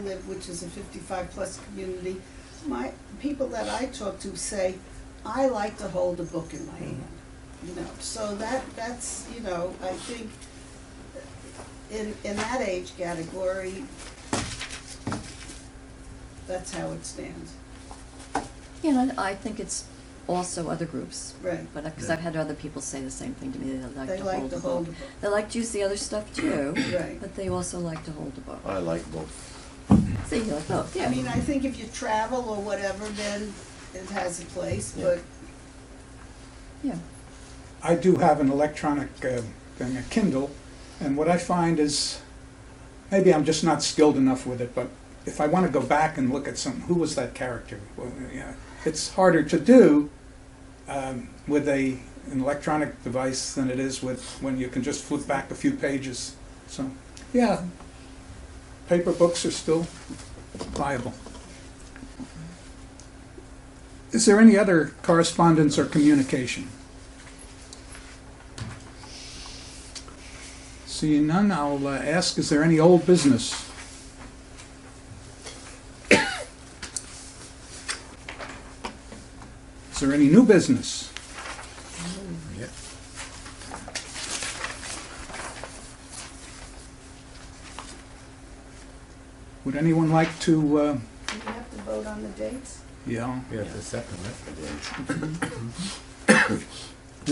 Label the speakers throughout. Speaker 1: live, which is a fifty-five plus community, my, people that I talk to say, I like to hold a book in my hand, you know, so that, that's, you know, I think uh, in, in that age category, that's how it stands,
Speaker 2: You know, I think it's also other groups,
Speaker 1: right,
Speaker 2: but, because
Speaker 3: Yeah.
Speaker 2: I've had other people say the same thing to me, they like
Speaker 1: They
Speaker 2: to
Speaker 1: like
Speaker 2: hold
Speaker 1: to
Speaker 2: the
Speaker 1: hold
Speaker 2: book.
Speaker 1: the book.
Speaker 2: They like to use the other stuff too,
Speaker 1: right.
Speaker 2: but they also like to hold the book.
Speaker 3: I like both.
Speaker 2: So you like both, yeah.
Speaker 1: I mean, I think if you travel or whatever, then it has a place,
Speaker 3: Yeah.
Speaker 1: but,
Speaker 2: Yeah,
Speaker 4: I do have an electronic uh, thing, a Kindle, and what I find is, maybe I'm just not skilled enough with it, but if I want to go back and look at some, who was that character? Well, yeah, it's harder to do um, with a an electronic device than it is with when you can just flip back a few pages. So, yeah, paper books are still viable. Is there any other correspondence or communication? Seeing none, I'll uh, ask, is there any old business? Is there any new business?
Speaker 3: Yeah.
Speaker 4: Would anyone like to, uh,
Speaker 1: do you have to vote on the dates?
Speaker 4: yeah,
Speaker 3: Yeah, the second, right?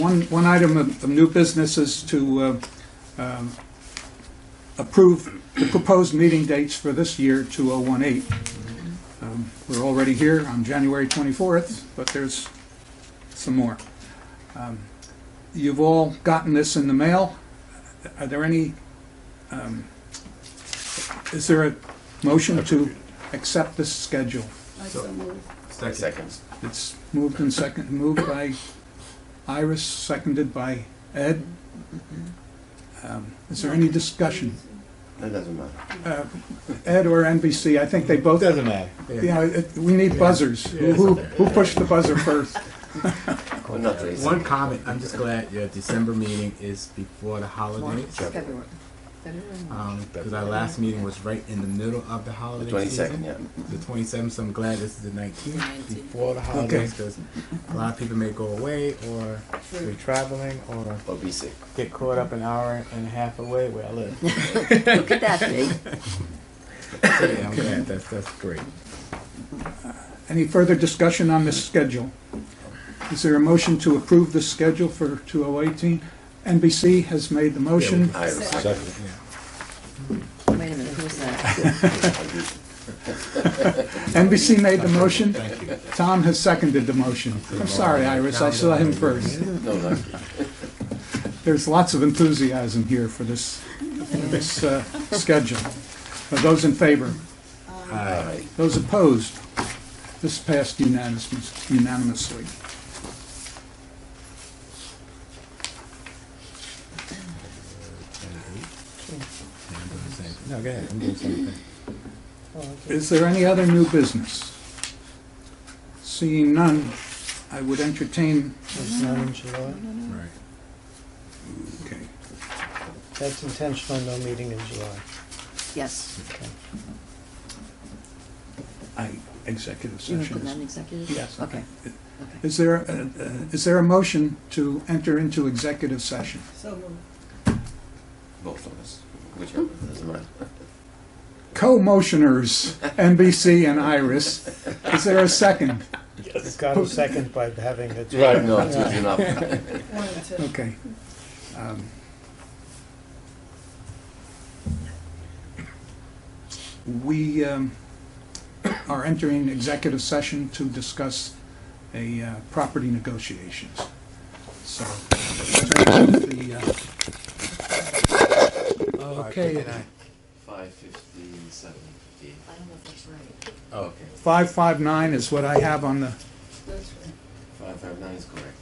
Speaker 4: one, one item of of new business is to uh, um, approve the proposed meeting dates for this year, 2018. Um, We're already here on January 24th, but there's some more. Um, You've all gotten this in the mail. Are there any, um, is there a motion to accept this schedule?
Speaker 1: I
Speaker 5: So-
Speaker 1: so move.
Speaker 3: Seconds.
Speaker 4: It's moved and second, moved by Iris, seconded by Ed. Um, Is there any discussion?
Speaker 3: That doesn't matter.
Speaker 4: Uh, Ed or NBC, I think they both, you
Speaker 5: Doesn't matter.
Speaker 4: know, it- we need buzzers. Who, who who pushed the buzzer first?
Speaker 3: Well, not really.
Speaker 5: One comment, I'm just glad your December meeting is before the holidays.
Speaker 3: Yep.
Speaker 2: February. February.
Speaker 5: Because our last meeting was right in the middle of the holiday
Speaker 3: The twenty-second, yeah.
Speaker 5: season. The 27th, so I'm glad this is the 19th, before the holidays. Because a lot of people may go away or be traveling or
Speaker 3: Or be sick.
Speaker 5: get caught up an hour and a half away where I live. So,
Speaker 2: Could that be?
Speaker 5: yeah, I'm glad, that's, that's great.
Speaker 4: Any further discussion on this schedule? Is there a motion to approve the schedule for 2018? NBC has made the motion.
Speaker 3: Iris.
Speaker 1: Second.
Speaker 2: Wait a minute, who's that?
Speaker 4: NBC made the motion. Tom has seconded the motion. I'm sorry, Iris, I saw him first.
Speaker 3: No, not.
Speaker 4: There's lots of enthusiasm here for this, this uh, schedule. Uh, Those in favor?
Speaker 1: Um,
Speaker 3: All right.
Speaker 4: Those opposed? This passed unanimous- unanimously.
Speaker 5: No, go ahead, I'm doing something.
Speaker 4: Is there any other new business? Seeing none, I would entertain,
Speaker 6: It's not in July.
Speaker 5: Right.
Speaker 4: okay,
Speaker 6: That's intentional, no meeting in July.
Speaker 2: Yes,
Speaker 4: I, executive
Speaker 2: you include that in
Speaker 4: session.
Speaker 2: executive?
Speaker 4: Yes.
Speaker 2: Okay,
Speaker 4: Is there, uh, uh, is there a motion to enter into executive session?
Speaker 1: So moved.
Speaker 3: Both of us. Whichever, doesn't matter.
Speaker 4: Co-motioners, NBC and Iris. Is there a second?
Speaker 6: It's got a second by having it.
Speaker 3: No, it's good enough.
Speaker 1: One and two.
Speaker 4: Okay. Um, We um, are entering executive session to discuss a uh, property negotiations. So, the, uh, okay,
Speaker 3: Five fifteen, seven fifteen.
Speaker 2: I don't know if that's right.
Speaker 3: Okay.
Speaker 4: 559 is what I have on the,
Speaker 1: That's right.
Speaker 3: Five five nine is correct.